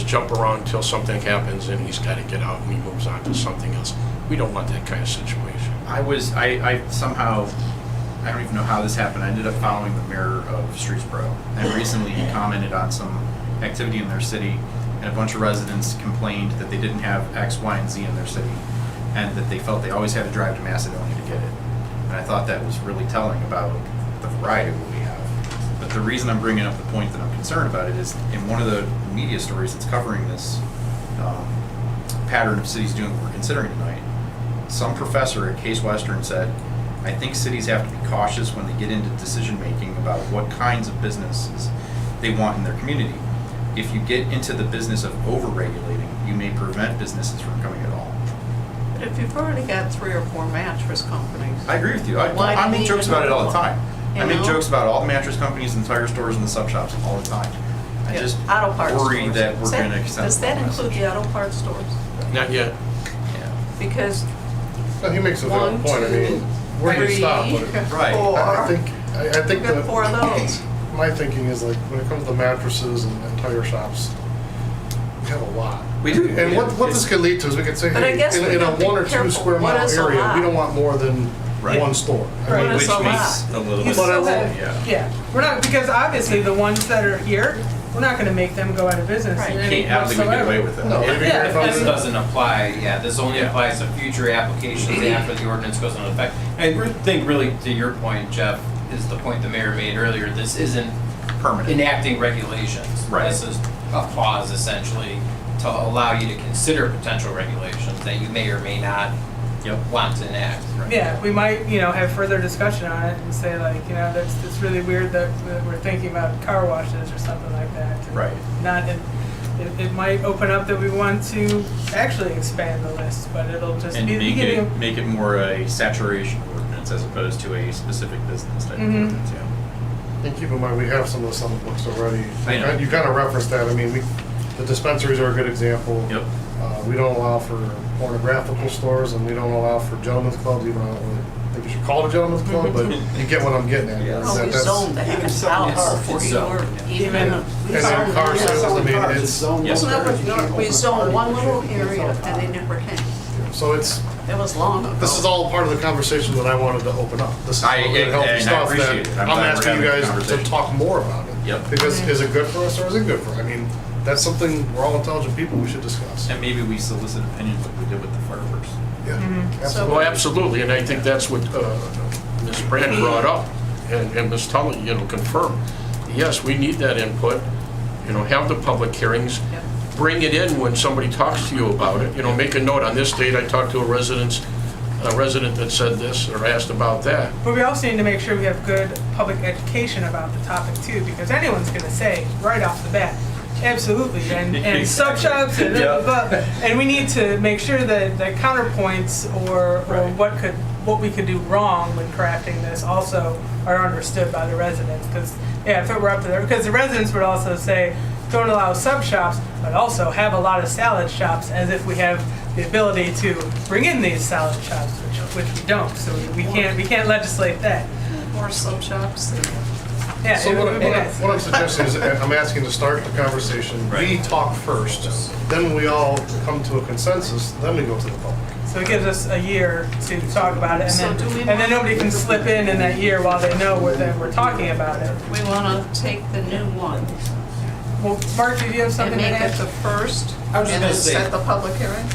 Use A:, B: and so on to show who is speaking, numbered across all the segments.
A: jump around until something happens and he's got to get out and he moves on to something else. We don't want that kind of situation.
B: I was, I, I somehow, I don't even know how this happened. I ended up following the mayor of Streetsboro. And recently he commented on some activity in their city, and a bunch of residents complained that they didn't have X, Y, and Z in their city, and that they felt they always had to drive to Macedonia to get it. And I thought that was really telling about the variety of what we have. But the reason I'm bringing up the point that I'm concerned about it is in one of the media stories that's covering this um, pattern of cities doing what we're considering tonight, some professor at Case Western said, I think cities have to be cautious when they get into decision making about what kinds of businesses they want in their community. If you get into the business of overregulating, you may prevent businesses from coming at all.
C: But if you've already got three or four mattress companies,
B: I agree with you. I,
C: Why
B: I
C: do
B: make
C: we
B: jokes
C: even
B: about it all the
C: want
B: time. I
C: You
B: make
C: know?
B: jokes about all the mattress companies and tire stores and the sub shops all the time. I
C: yeah,
B: just
C: auto parts stores.
B: worry that we're
C: Does that-
B: going to extend.
C: Does that include the auto parts stores?
A: Not yet.
B: Yeah.
C: Because
D: No, he makes a valid
C: one,
D: point, I
C: two,
D: mean, where do you
C: three,
D: stop? with it?
B: Right.
C: four.
D: I I think, I I think
C: We've got
D: that.
C: four of those.
D: My thinking is like, when it comes to mattresses and and tire shops, we have a lot.
B: We do.
D: And what, what this could lead to is we could say,
C: But I
D: hey,
C: guess
D: in
C: we
D: in a
C: have to
D: one or
C: be
D: two
C: careful.
D: square
C: What
D: mile
C: is a
D: area,
C: lot?
D: we don't want more than
B: Right.
D: one store. I
E: Right.
D: mean,
C: What
B: Which
C: is a
B: makes
C: lot?
B: a little
C: You
B: bit-
D: But I
C: still
D: will-
C: have-
B: Yeah.
E: Yeah, we're not, because obviously the ones that are here, we're not gonna make them go out of business
C: Right.
E: in
B: You
E: any
B: can't, I don't think we get away
E: whatsoever.
B: with that.
D: No, they'd be
E: Yeah,
D: here if I
E: and-
F: This
D: was-
F: doesn't apply, yeah, this only
B: Yeah. Mm-hmm.
F: applies to future applications after the ordinance goes into effect. I re- think really, to your point, Jeff, is the point the mayor made earlier, this isn't
B: Permanent.
F: enacting regulations.
B: Right.
F: This is a pause essentially to allow you to consider potential regulations that you may or may not
B: Yep.
F: want to enact.
E: Yeah, we might, you know, have further discussion on it and say like, you know, that's, it's really weird that that we're thinking about car washes or something like that.
B: Right.
E: Not, in- it, it might open up that we want to actually expand the list, but it'll just
B: And
E: be the
B: make
E: beginning.
B: it, make it more a saturation ordinance as opposed to a specific business type of
C: Mm-hmm.
E: Mhm.
B: ordinance, yeah.
D: And keep in mind, we have some of this on the books already.
B: I know.
D: You kind of referenced that, I mean, we, the dispensaries are a good example.
B: Yep.
D: Uh, We don't allow for pornographical stores, and we don't allow for gentlemen's clubs, even though I don't really think you should call it a gentleman's club, but you get what I'm getting at.
B: Yeah.
C: Well,
D: That-
C: Oh, we
D: that's-
C: zoned
G: even
C: that
G: some-
C: out
F: it's-
C: before
F: it's
C: you were
F: zoned, yeah.
C: even.
D: Yeah.
C: we
D: And then
C: zoned-
D: car
C: we
D: sales, I
C: zoned-
D: mean, it's,
B: Yes,
C: no, We zoned one little area and they never came.
D: so it's,
C: That was long ago.
D: this is all part of the conversation that I wanted to open up. This is
B: I-
D: all good healthy
B: and I
D: stuff that
B: appreciate it. I'm
D: I'm
B: glad we're
D: asking
B: having
D: you
B: this
D: guys to
B: conversation.
D: talk more about it.
B: Yep.
D: Because is it good for us or is it good for, I mean, that's something we're all intelligent people, we should discuss.
B: And maybe we solicit opinions like we did with the fireworks.
D: Yeah,
A: Well,
D: absolutely.
A: absolutely, and I think that's what uh, Ms. Brand brought up, and and Ms. Tully, you know, confirmed. Yes, we need that input, you know, have the public hearings,
C: Yep.
A: bring it in when somebody talks to you about it, you know, make a note, on this date, I talked to a resident's, a resident that said this or asked about that.
E: But we also need to make sure we have good public education about the topic too, because anyone's gonna say right off the bat, absolutely, and, and sub shops and blah, blah, blah. And we need to make sure that the counterpoints or, or
B: Right.
E: what could, what we could do wrong when crafting this also are understood by the residents, because, yeah, if it were up to them, because the residents would also say, don't allow sub shops, but also have a lot of salad shops, as if we have the ability to bring in these salad shops, which, which we don't, so we- we can't, we can't legislate that.
C: More sub shops than.
E: Yeah,
D: So
E: it-
D: what I'm,
E: it
D: what I'm-
E: is.
D: what I'm suggesting is, I'm asking to start the conversation, we
B: Right.
D: talk first, then we all come to a consensus, then we go to the public.
E: So it gives us a year to talk about it, and
C: So
E: then,
C: do we
E: and then
C: want-
E: nobody can slip in in that year while they know we're, that we're talking about it.
C: We want to take the new one
E: Well, Mark, did you have
C: and
E: something to
C: make it the
E: add?
C: first and
F: I was just gonna
C: then
F: say-
C: set the public hearing?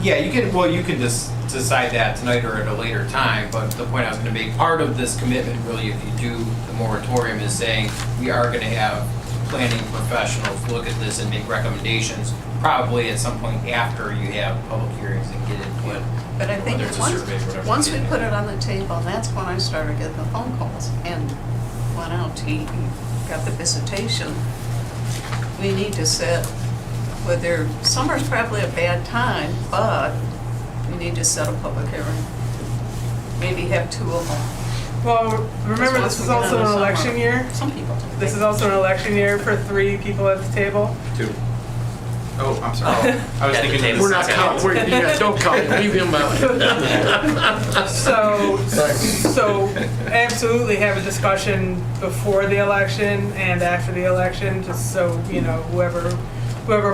F: Yeah, you can, well, you can just decide that tonight or at a later time, but the point I was gonna make, part of this commitment really, if you do the moratorium, is saying we are gonna have planning professionals look at this and make recommendations, probably at some point after you have public hearings and get input.
C: But I think
F: whether it's a survey or
C: once,
F: whatever.
C: once we put it on the table, that's when I started getting the phone calls and went out to eat and got the visitation. We need to set, whether, summer's probably a bad time, but we need to set a public hearing. Maybe have two of them.
E: Well, remember,
C: Once
E: this is
C: we get out
E: also
C: of
E: an
C: the summer.
E: election year.
C: Some people do.
E: This is also an election year for three people at the table.
B: Two. Oh, I'm sorry. I was
F: At the
B: thinking.
F: table.
B: of the
A: We're not
B: second.
A: counting, we're- yeah, don't count, leave him out.
E: So, so absolutely have a discussion before the election and after the election, just so, you know, whoever, whoever